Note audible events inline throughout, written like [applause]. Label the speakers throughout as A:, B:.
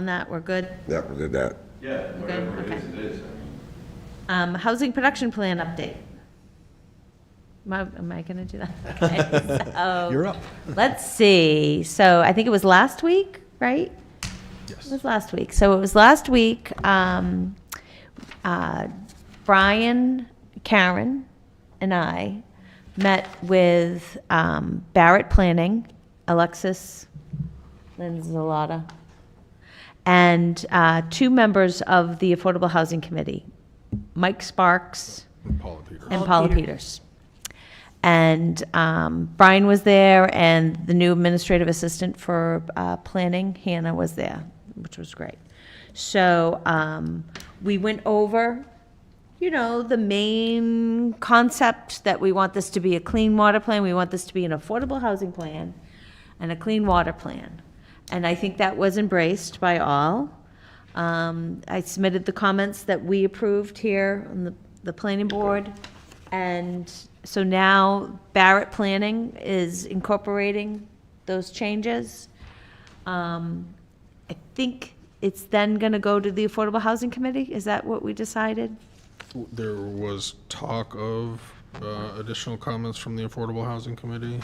A: on that, we're good?
B: Yeah, we did that.
C: Yeah, whatever it
A: okay.
C: is, it is.
A: Um, housing production plan update. Am I, am I gonna do that? [laughs] Okay, so-
D: You're up.
A: Let's see. So I think it was last week, right? It
D: Yes.
A: was last week. So it was last week. Um, uh, Brian, Karen, and I met with um, Barrett Planning, Alexis Lenzalata, and uh, two members of the Affordable Housing Committee, Mike Sparks
D: Paula Peter.
A: and Paula Peters. And um, Brian was there, and the new administrative assistant for uh, planning, Hannah, was there, which was great. So um, we went over, you know, the main concept that we want this to be a clean water plan, we want this to be an affordable housing plan, and a clean water plan. And I think that was embraced by all. Um, I submitted the comments that we approved here on the, the planning board. And so now Barrett Planning is incorporating those changes. Um, I think it's then gonna go to the Affordable Housing Committee, is that what we decided?
D: There was talk of uh, additional comments from the Affordable Housing Committee.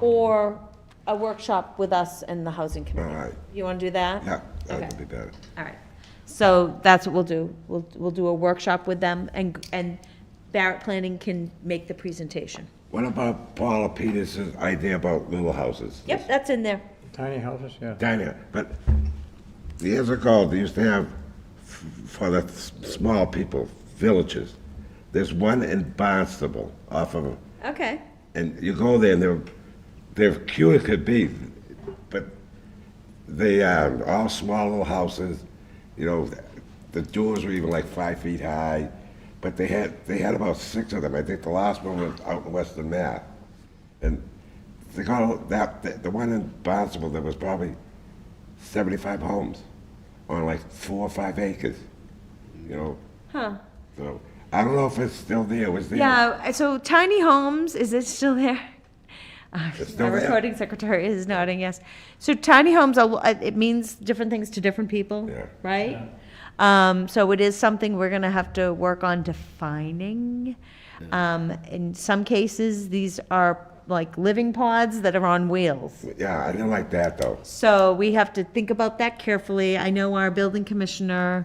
A: Or a workshop with us and the housing committee?
B: All right.
A: You wanna do that?
B: Yeah,
A: Okay.
B: that would be better.
A: All right. So that's what we'll do. We'll, we'll do a workshop with them and, and Barrett Planning can make the presentation.
B: What about Paula Peters' idea about little houses?
A: Yep, that's in there.
E: Tiny houses, yeah.
B: Diana, but years ago, they used to have, f- for the s- small people, villages. There's one in Barnstable off of,
A: Okay.
B: and you go there and they're, they're cute as could be, but they are all small little houses, you know, the doors were even like five feet high, but they had, they had about six of them. I think the last one was out in Western Mass. And they got, that, the- the one in Barnstable, there was probably 75 homes on like four or five acres, you know?
A: Huh.
B: So, I don't know if it's still there, it was there.
A: Yeah, so tiny homes, is it still there? [laughs] Uh,
B: It's still
A: My
B: there.
A: recording secretary is nodding, yes. So tiny homes, are- uh, it means different things to different people,
B: Yeah.
A: right? Um, so it is something we're gonna have to work on defining. Um, in some cases, these are like living pods that are on wheels.
B: Yeah, I didn't like that, though.
A: So we have to think about that carefully. I know our building commissioner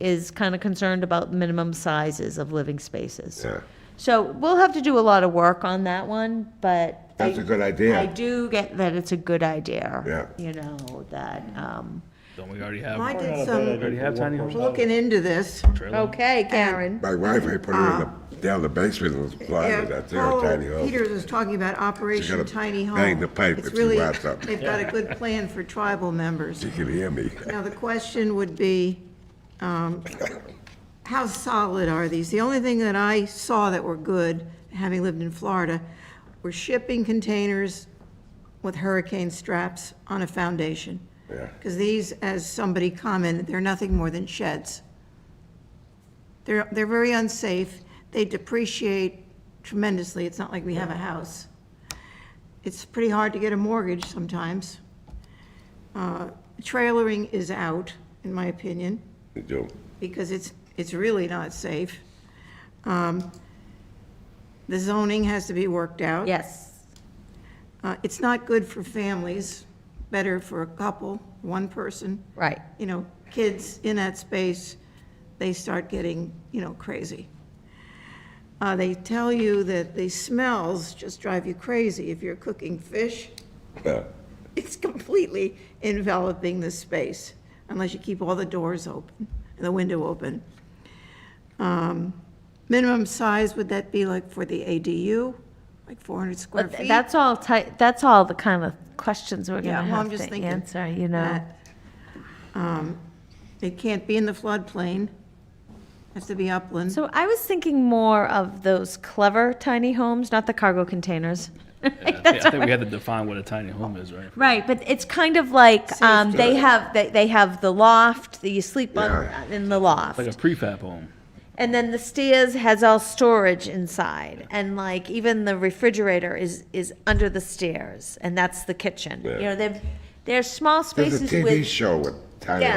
A: is kind of concerned about minimum sizes of living spaces.
B: Yeah.
A: So we'll have to do a lot of work on that one, but.
B: That's
A: I-
B: a good idea.
A: I do get that it's a good idea.
B: Yeah.
A: You know, that, um,
F: Don't we already have
G: I did
E: Not a bad
G: some
E: idea for one person.
G: looking into this.
F: trailer?
A: okay, Karen.
B: My wife, I put her in
A: Ah.
B: the, down the basement and
G: Yeah,
B: planted that there,
A: Oh,
G: Paul
B: tiny home.
G: Peters is talking about Operation
B: gotta
G: Tiny Home.
B: bang the pipe
G: It's
B: if she
G: really-
B: wants something.
G: They've got a good plan for tribal members.
B: She can hear me. [laughs]
G: Now, the question would be, um, how solid are these? The only thing that I saw that were good, having lived in Florida, were shipping containers with hurricane straps on a foundation.
B: Yeah.
G: Because these, as somebody commented, they're nothing more than sheds. They're, they're very unsafe. They depreciate tremendously. It's not like we have a house. It's pretty hard to get a mortgage sometimes. Uh, Trailering is out, in my opinion,
B: You do.
G: because it's, it's really not safe. Um, The zoning has to be worked out.
A: Yes,
G: Uh, It's not good for families, better for a couple, one person.
A: right.
G: You know, kids in that space, they start getting, you know, crazy. Uh, They tell you that the smells just drive you crazy. If you're cooking fish, [laughs]
B: Yeah.
G: it's completely enveloping the space, unless you keep all the doors open, and the window open. Um, Minimum size, would that be like for the ADU, like 400 square
A: But th-
G: feet?
A: that's all ti, that's all the kind of questions we're
G: Yeah,
A: gonna
G: well, I'm
A: have
G: just
A: to
G: thinking
A: answer, you know?
G: that, um, It can't be in the floodplain. Has to be upland.
A: So I was thinking more of those clever tiny homes, not the cargo containers.
F: Yeah, I think we had to define what a tiny home is, right?
A: Right, but it's kind of like, um, they have, they, they have the loft, that you sleep
B: Yeah.
A: on, in the loft.
F: Like a prefab home.
A: And then the stairs has all storage inside, and like even the refrigerator is, is under the stairs, and that's the kitchen. You
B: Yeah.
A: know, they've, they're small
B: There's a
A: spaces
B: TV
A: with,
B: show with tiny
A: Yeah,